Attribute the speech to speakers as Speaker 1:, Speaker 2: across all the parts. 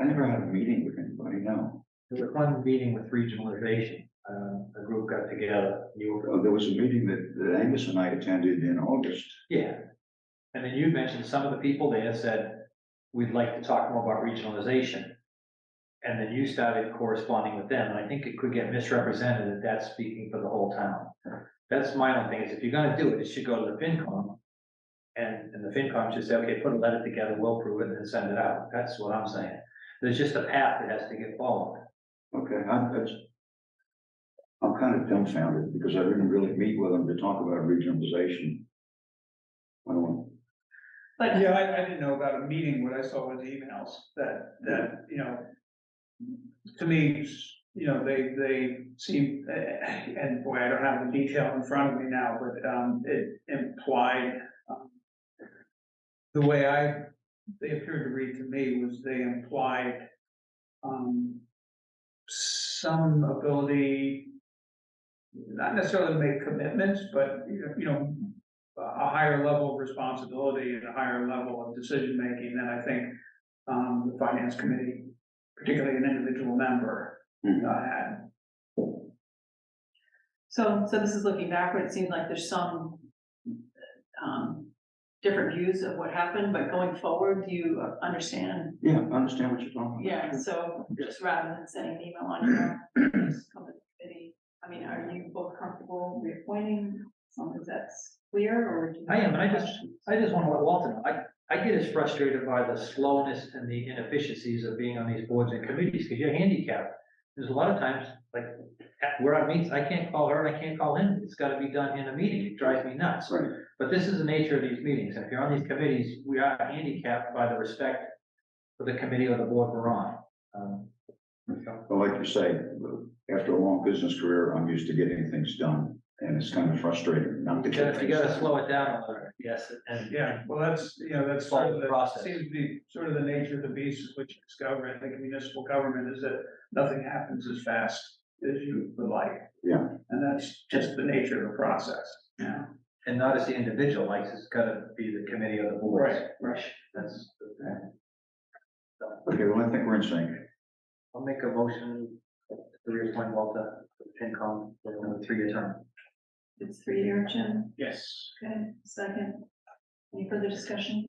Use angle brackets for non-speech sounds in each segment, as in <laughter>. Speaker 1: I never had a meeting with anybody, no.
Speaker 2: It was a fun meeting with regionalization. Uh, a group got together, you were,
Speaker 1: Well, Oh, There was a meeting that, that Angus and I attended in August.
Speaker 2: yeah. And then you mentioned some of the people there said, we'd like to talk more about regionalization. And then you started corresponding with them, and I think it could get misrepresented that that's speaking for the whole town. That's my own thing, is if you're gonna do it, it should go to the FinCom. And, and the FinCom should say, okay, put a letter together, we'll prove it, and then send it out. That's what I'm saying. There's just a path that has to get followed.
Speaker 1: Okay, I, that's. I'm kind of dumbfounded because I didn't really meet with them to talk about regionalization. I don't,
Speaker 3: But,
Speaker 4: Yeah, I, I didn't know about a meeting, what I saw was emails that, that, you know, to me, you know, they, they seem, eh, and boy, I don't have the detail in front of me now, but, um, it implied, um, the way I, they appeared to read to me was they implied, um, some ability, not necessarily to make commitments, but, you know- you know, a higher level of responsibility and a higher level of decision-making than I think um, the finance committee, particularly an individual member,
Speaker 1: Mhm.
Speaker 2: Hmm.
Speaker 4: uh, had.
Speaker 3: so, so this is looking backward, it seems like there's some, um, different views of what happened, but going forward, do you understand?
Speaker 1: yeah, I understand what you're talking about.
Speaker 3: Yeah, so just rather than sending an email on your own, just come to the committee, I mean, are you both comfortable reappointing someone that's clear or? do you
Speaker 2: I am, and I
Speaker 3: have
Speaker 2: just-
Speaker 3: questions?
Speaker 2: I just want to let Walter know, I, I get as frustrated by the slowness and the inefficiencies of being on these boards and committees, because you're handicapped. There's a lot of times, like, at- where I meet, I can't call her, and I can't call him, it's gotta be done in a meeting, it drives me nuts.
Speaker 1: Right.
Speaker 2: But this is the nature of these meetings, and if you're on these committees, we are handicapped by the respect for the committee or the board we're on. Um,
Speaker 1: Well, like you say, after a long business career, I'm used to getting things done and it's kind of frustrating not to
Speaker 2: You gotta,
Speaker 1: get
Speaker 2: you
Speaker 1: things
Speaker 2: gotta
Speaker 1: done.
Speaker 2: slow it down a little, bit, yes, and,
Speaker 4: Yeah, well, that's, you know, that's
Speaker 2: Follow
Speaker 4: sort of
Speaker 2: the
Speaker 4: the,
Speaker 2: process.
Speaker 4: seems to be sort of the nature of the beast, which is government, I think municipal government is that nothing happens as fast as you would like.
Speaker 1: Yeah.
Speaker 4: And that's just the nature of the process, yeah.
Speaker 2: and not as the individual, like, it's gotta be the committee or the board.
Speaker 4: Right, right.
Speaker 2: That's the thing.
Speaker 1: Okay, well, I think we're in sync.
Speaker 2: I'll make a motion to reappoint Walter to FinCom for another three-year term.
Speaker 3: It's three-year, Jim?
Speaker 4: Yes.
Speaker 3: Okay, second. Any further discussion?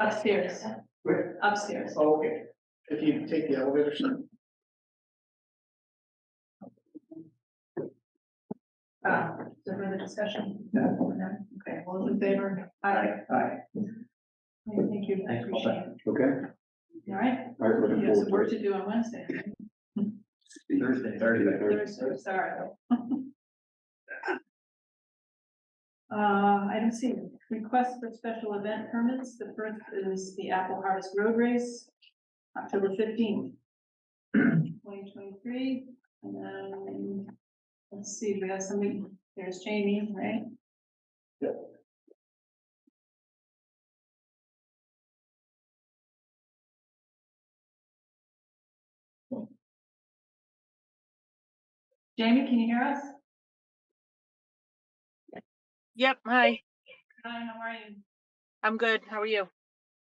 Speaker 3: Upstairs.
Speaker 4: Where?
Speaker 3: Upstairs.
Speaker 4: Okay, if you take the elevator,
Speaker 3: Uh, is there further discussion?
Speaker 4: No.
Speaker 3: Okay, all those in favor? Aye.
Speaker 4: Aye.
Speaker 3: Okay, Thank you, I
Speaker 2: Thanks, Paul.
Speaker 3: appreciate it.
Speaker 1: Okay,
Speaker 3: All right,
Speaker 1: all right,
Speaker 3: you
Speaker 1: looking
Speaker 3: have some work
Speaker 1: forward
Speaker 3: to do on Wednesday.
Speaker 1: to.
Speaker 2: Thursday.
Speaker 3: Thursday, sorry. <laughs> Uh, item C, request for special event permits. The first is the Apple Harvest Road Race, October fifteenth, twenty twenty-three. And then, let's see, we have somebody, there's Jamie, right? Jamie, can you hear us?
Speaker 5: Yep, hi.
Speaker 3: Hi, how are you?
Speaker 5: I'm good. How are you?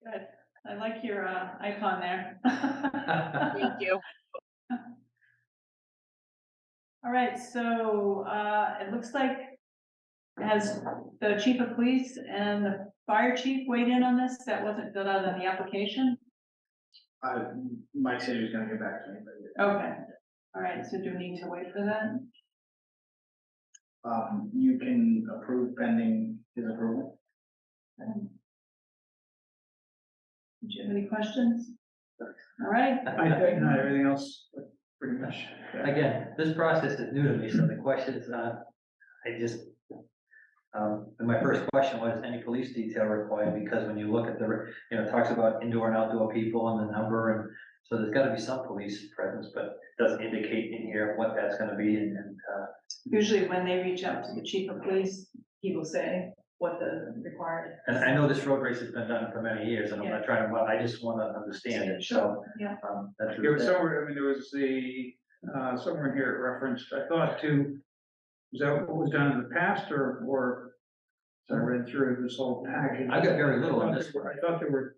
Speaker 3: Good. I like your uh, icon
Speaker 2: <laughs>
Speaker 3: there. <laughs>
Speaker 5: Thank you.
Speaker 3: All right, so uh, it looks like has the chief of police and the fire chief weighed in on this? That wasn't filled out on the application?
Speaker 4: I, Mike said he was gonna get back to me, but,
Speaker 3: Okay. All right, so do we need to wait for that?
Speaker 4: um, you can approve pending his approval?
Speaker 3: Um, Do you have any questions? All right,
Speaker 4: I think not everything else, pretty much.
Speaker 2: <laughs> Again, this process is new to me, so the question is, uh, I just, um, and my first question was, any police detail required? Because when you look at the, you know, it talks about indoor and outdoor people and the number, and so there's gotta be some police presence, but it doesn't indicate in here what that's gonna be, and, and, uh,
Speaker 3: usually when they reach out to the chief of police, he will say what the required.
Speaker 2: and I know this road race has been done for many years, and I'm not trying to, but I just wanna understand it, so,
Speaker 3: Yeah,
Speaker 2: um, that's.
Speaker 4: There was somewhere, I mean, there was the, uh, somewhere in here it referenced, I thought to, is that what was done in the past or, or? So I read through this whole package.
Speaker 2: I got very little on this one.
Speaker 4: I thought there were